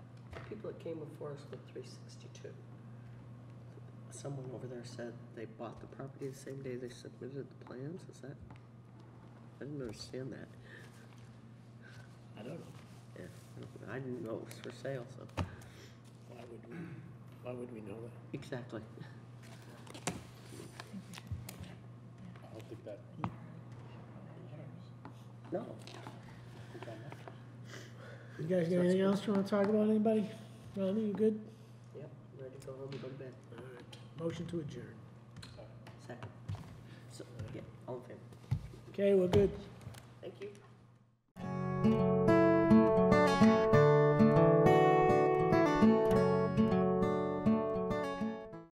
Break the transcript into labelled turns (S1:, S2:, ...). S1: people that came before us with three sixty-two. Someone over there said they bought the property the same day they submitted the plans, is that? I didn't understand that.
S2: I don't know.
S1: Yeah, I didn't know it was for sale, so,
S2: Why would we, why would we know that?
S1: exactly.
S3: I don't think that,
S1: No,
S3: think that matters.
S4: You guys got anything else you wanna talk about, anybody? Ronnie, you good?
S1: yep, ready to go home and go to bed,
S4: Alright, motion to adjourn.
S1: second. So, yeah, all in favor,
S4: Okay, we're good.
S1: thank you.